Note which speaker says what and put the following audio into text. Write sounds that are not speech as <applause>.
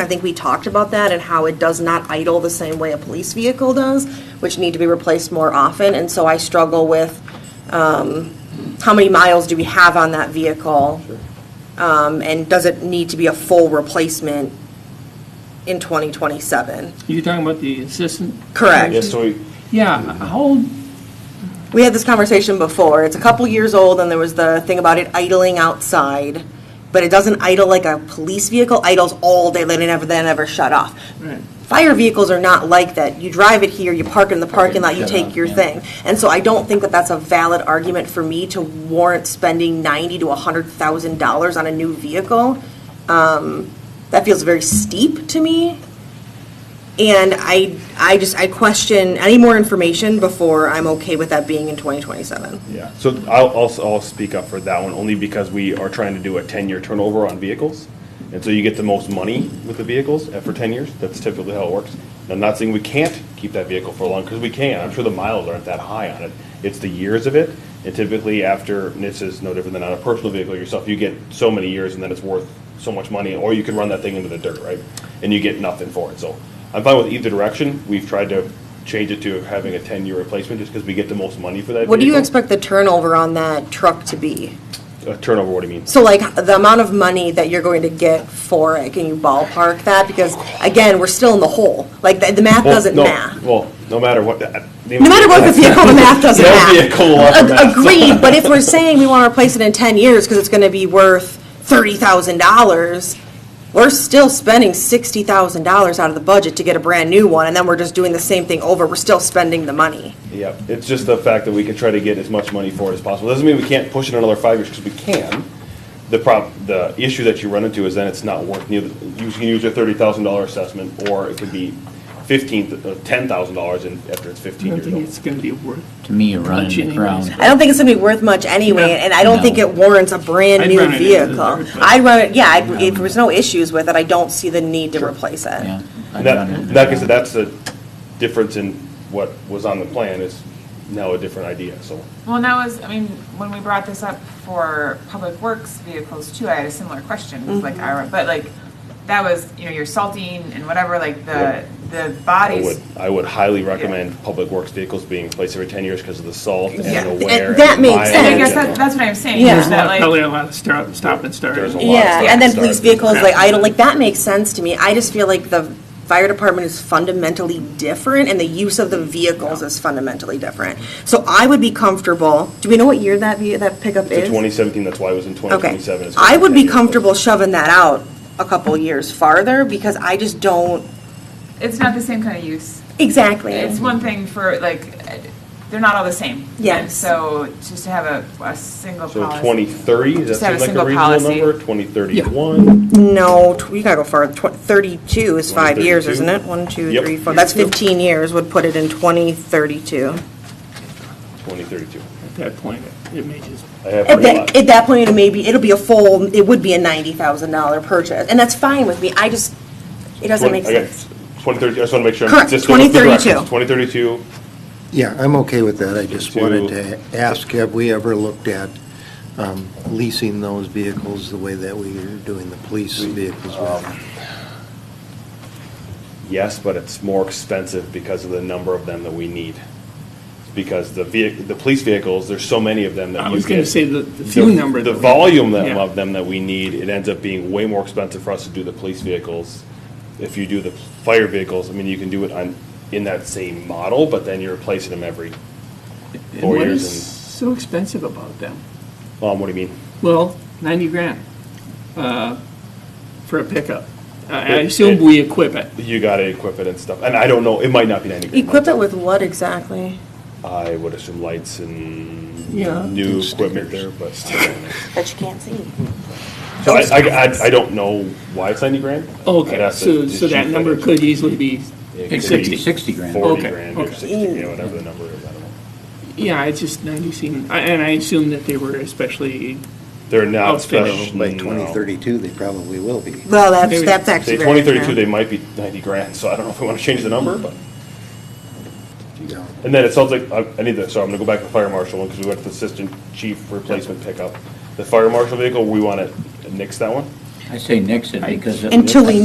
Speaker 1: I think we talked about that and how it does not idle the same way a police vehicle does, which need to be replaced more often. And so I struggle with um, how many miles do we have on that vehicle? Um, And does it need to be a full replacement in 2027?
Speaker 2: You're talking about the assistant?
Speaker 1: Correct.
Speaker 3: Yes, so we,
Speaker 2: Yeah, how old,
Speaker 1: We had this conversation before. It's a couple years old, and there was the thing about it idling outside. But it doesn't idle like a police vehicle idles all day. They never, they never shut off.
Speaker 2: Right.
Speaker 1: Fire vehicles are not like that. You drive it here, you park in the parking lot, you
Speaker 4: shut
Speaker 1: take
Speaker 4: off,
Speaker 1: your
Speaker 4: yeah.
Speaker 1: thing. And so I don't think that that's a valid argument for me to warrant spending ninety to a hundred thousand dollars on a new vehicle. Um, that feels very steep to me. And I, I just, I question any more information before I'm okay with that being in 2027.
Speaker 3: yeah, so I'll, I'll, I'll speak up for that one, only because we are trying to do a ten-year turnover on vehicles. And so you get the most money with the vehicles uh, for ten years, that's typically how it works. And I'm not saying we can't keep that vehicle for long, because we can, I'm sure the miles aren't that high on it. It's the years of it, and typically after, and this is no different than on a personal vehicle yourself, you get so many years and then it's worth so much money, or you can run that thing into the dirt, right? And you get nothing for it, so I'm fine with either direction, we've tried to change it to having a ten-year replacement, just because we get the most money for that
Speaker 1: What do you
Speaker 3: vehicle.
Speaker 1: expect the turnover on that truck to be?
Speaker 3: Uh, turnover, what do you mean?
Speaker 1: So like the amount of money that you're going to get for it, can you ballpark that? Because again, we're still in the hole. Like the, the math
Speaker 3: Well,
Speaker 1: doesn't
Speaker 3: no,
Speaker 1: math.
Speaker 3: Well, no matter what. uh, No
Speaker 1: No matter what the vehicle, the math doesn't
Speaker 3: That
Speaker 1: math.
Speaker 3: would be a cool lot
Speaker 1: Ag-
Speaker 3: of math.
Speaker 1: Agreed, but if we're saying we want to replace it in ten years because it's going to be worth thirty thousand dollars, we're still spending sixty thousand dollars out of the budget to get a brand new one, and then we're just doing the same thing over. We're still spending the money.
Speaker 3: Yeah, it's just the fact that we could try to get as much money for it as possible. Doesn't mean we can't push it another five years, because we can. The prob, the issue that you run into is then it's not worth, neither, you can use a thirty thousand dollar assessment, or it could be fifteen, uh, ten thousand dollars in, after it's
Speaker 2: I
Speaker 3: fifteen
Speaker 2: don't
Speaker 3: years
Speaker 2: think
Speaker 3: old.
Speaker 2: it's going to be worth,
Speaker 4: To me, you're running the ground.
Speaker 1: I don't think it's gonna be worth much anyway,
Speaker 2: No.
Speaker 1: and I don't think
Speaker 4: No.
Speaker 1: it warrants a brand
Speaker 2: I'd
Speaker 1: new
Speaker 2: run it into the
Speaker 1: vehicle.
Speaker 2: dirt, but-
Speaker 1: I'd run it, yeah, I'd- if there's no issues with it, I don't see the need to replace it.
Speaker 4: Yeah.
Speaker 3: And
Speaker 4: I'd run it in the
Speaker 3: that, like I said,
Speaker 4: ground.
Speaker 3: that's the difference in what was on the plan is now a different idea, so.
Speaker 5: Well, and that was, I mean, when we brought this up for public works vehicles too, I had a similar question, 'cause, like, I, but like, that was, you know, your salting and whatever, like, the, the
Speaker 3: I
Speaker 5: bodies.
Speaker 3: would, I would highly recommend public works vehicals being replaced every ten years because of the salt and
Speaker 5: Yeah.
Speaker 3: the wear.
Speaker 1: And that
Speaker 3: and
Speaker 1: makes
Speaker 3: mileage
Speaker 5: And I
Speaker 1: sense.
Speaker 5: guess
Speaker 3: and-
Speaker 5: that, that's what I'm saying,
Speaker 1: Yeah.
Speaker 5: is that like.
Speaker 2: probably a lot of stop, stop and start.
Speaker 3: There's a lot.
Speaker 1: Yeah, and then
Speaker 3: Start.
Speaker 1: police vehicles, like, I don't, like, that makes sense to me. I just feel like the fire department is fundamentally different, and the use of the vehicles is fundamentally different. So I would be comfortable, do we know what year that, ve- that pickup
Speaker 3: It's
Speaker 1: is?
Speaker 3: a twenty seventeen, that's why it was in twenty
Speaker 1: Okay.
Speaker 3: twenty-seven. It's
Speaker 1: I would be
Speaker 3: 10 years.
Speaker 1: comfortable shoving that out a couple years farther, because I just don't,
Speaker 5: It's not the same kind of use.
Speaker 1: exactly.
Speaker 5: It's one thing for, like, uh, they're not all the same.
Speaker 1: Yes.
Speaker 5: And so just to have a, a single policy.
Speaker 3: So twenty thirty, does
Speaker 5: Just
Speaker 3: that
Speaker 5: have a
Speaker 3: seem like a
Speaker 5: single
Speaker 3: reasonable
Speaker 5: policy.
Speaker 3: number? Twenty thirty-one?
Speaker 1: No, tw- you gotta go far, tw- thirty-two is five years,
Speaker 3: 32?
Speaker 1: isn't it? One, two,
Speaker 3: Yep.
Speaker 1: three, four, that's fifteen years, would put it in twenty thirty-two.
Speaker 3: Twenty thirty-two.
Speaker 2: At that point, it may just,
Speaker 3: I have
Speaker 1: At
Speaker 3: pretty
Speaker 1: that,
Speaker 3: much.
Speaker 1: at that point, it may be, it'll be a full, it would be a ninety thousand dollar purchase, and that's fine with me, I just, it doesn't make sense.
Speaker 3: Twenty thirty, I just want to make sure.
Speaker 1: Correct,
Speaker 3: Twenty thirty-two,
Speaker 6: Yeah, I'm okay with that. I just
Speaker 3: 52.
Speaker 6: wanted to ask, have we ever looked at um, leasing those vehicles the way that we are doing the police vehicles? with?
Speaker 3: yes, but it's more expensive because of the number of them that we need. Because the vehicle, the police vehicles, there's so many of them that
Speaker 2: I
Speaker 3: you
Speaker 2: was going to
Speaker 3: get-
Speaker 2: say the the few number.
Speaker 3: The
Speaker 2: that-
Speaker 3: volume them,
Speaker 2: Yeah.
Speaker 3: of them that we need, it ends up being way more expensive for us to do the police vehicles. If you do the fire vehicles, I mean, you can do it on, in that same model, but then you're replacing them every,
Speaker 2: And
Speaker 3: four
Speaker 2: What
Speaker 3: years
Speaker 2: is so expensive about them?
Speaker 3: um, what do you mean?
Speaker 2: Well, 90 grand uh, for a pickup. I I assume we equip it.
Speaker 3: You gotta equip it and stuff, and I don't know, it might not be ninety grand.
Speaker 1: Equip it with what exactly?
Speaker 3: I would assume lights and
Speaker 2: Yeah.
Speaker 3: new
Speaker 6: And
Speaker 3: equipment there,
Speaker 6: stickers.
Speaker 1: <laughs>
Speaker 3: but.
Speaker 1: That you can't see.
Speaker 3: So I, I, I- I don't know why it's ninety grand. I'd
Speaker 2: Okay,
Speaker 3: have to
Speaker 2: so,
Speaker 3: just
Speaker 2: so that
Speaker 3: shoot
Speaker 2: number
Speaker 3: it.
Speaker 2: could easily be
Speaker 3: It could be
Speaker 2: 60.
Speaker 4: 60 grand.
Speaker 3: Forty
Speaker 2: Okay,
Speaker 3: grand or
Speaker 2: okay.
Speaker 3: sixty, you know, whatever the number is, I don't know.
Speaker 2: Yeah, it's just 90 seemed, I- and I assume that they were especially,
Speaker 3: They're not
Speaker 2: Outfit.
Speaker 3: special.
Speaker 6: By
Speaker 3: no.
Speaker 6: 2032, they probably will be.
Speaker 1: Well, that's,
Speaker 2: Maybe-
Speaker 1: that's actually
Speaker 3: Say
Speaker 1: very.
Speaker 3: twenty thirty-two,
Speaker 1: fair.
Speaker 3: they might be ninety grand, so I don't know if we want to change the number, but,
Speaker 6: you know.
Speaker 3: and then it sounds like, I, I need to, so I'm gonna go back to the fire marshal one, because we went to the assistant chief replacement pickup. The fire marshal vehicle, we want to nix that one?
Speaker 4: I say nix it because. it
Speaker 1: Until we